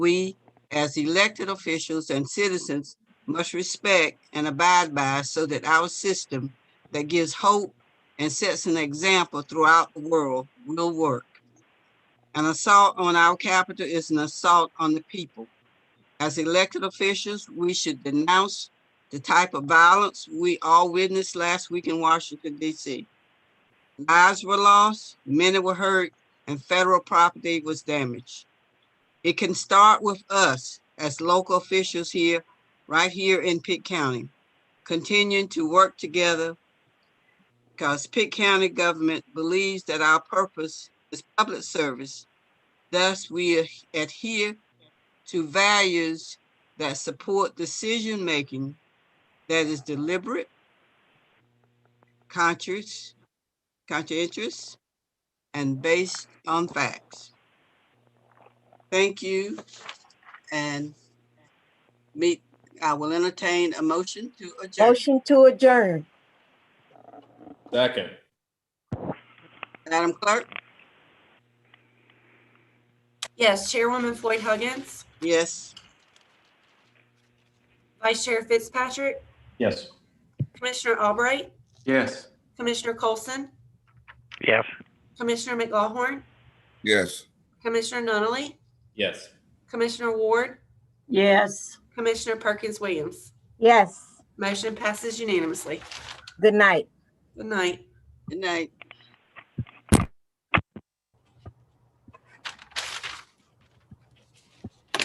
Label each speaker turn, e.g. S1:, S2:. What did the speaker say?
S1: we, as elected officials and citizens, must respect and abide by so that our system that gives hope and sets an example throughout the world will work. An assault on our capital is an assault on the people. As elected officials, we should denounce the type of violence we all witnessed last week in Washington, D.C. Lives were lost, many were hurt, and federal property was damaged. It can start with us as local officials here, right here in Pitt County, continuing to work together because Pitt County government believes that our purpose is public service. Thus, we adhere to values that support decision-making that is deliberate, conscious, conscientious, and based on facts. Thank you, and meet, I will entertain a motion to adjourn.
S2: Motion to adjourn.
S3: Second.
S1: Madam Clerk?
S4: Yes, Chairwoman Floyd Huggins,
S1: Yes.
S4: Vice Chair Fitzpatrick,
S3: Yes.
S4: Commissioner Albright,
S3: Yes.
S4: Commissioner Colson,
S5: Yes.
S4: Commissioner McGawhorn,
S6: Yes.
S4: Commissioner Nunley,
S3: Yes.
S4: Commissioner Ward,
S7: Yes.
S4: Commissioner Perkins Williams.
S2: Yes.
S4: Motion passes unanimously.
S2: Good night.
S4: Good night.
S1: Good night.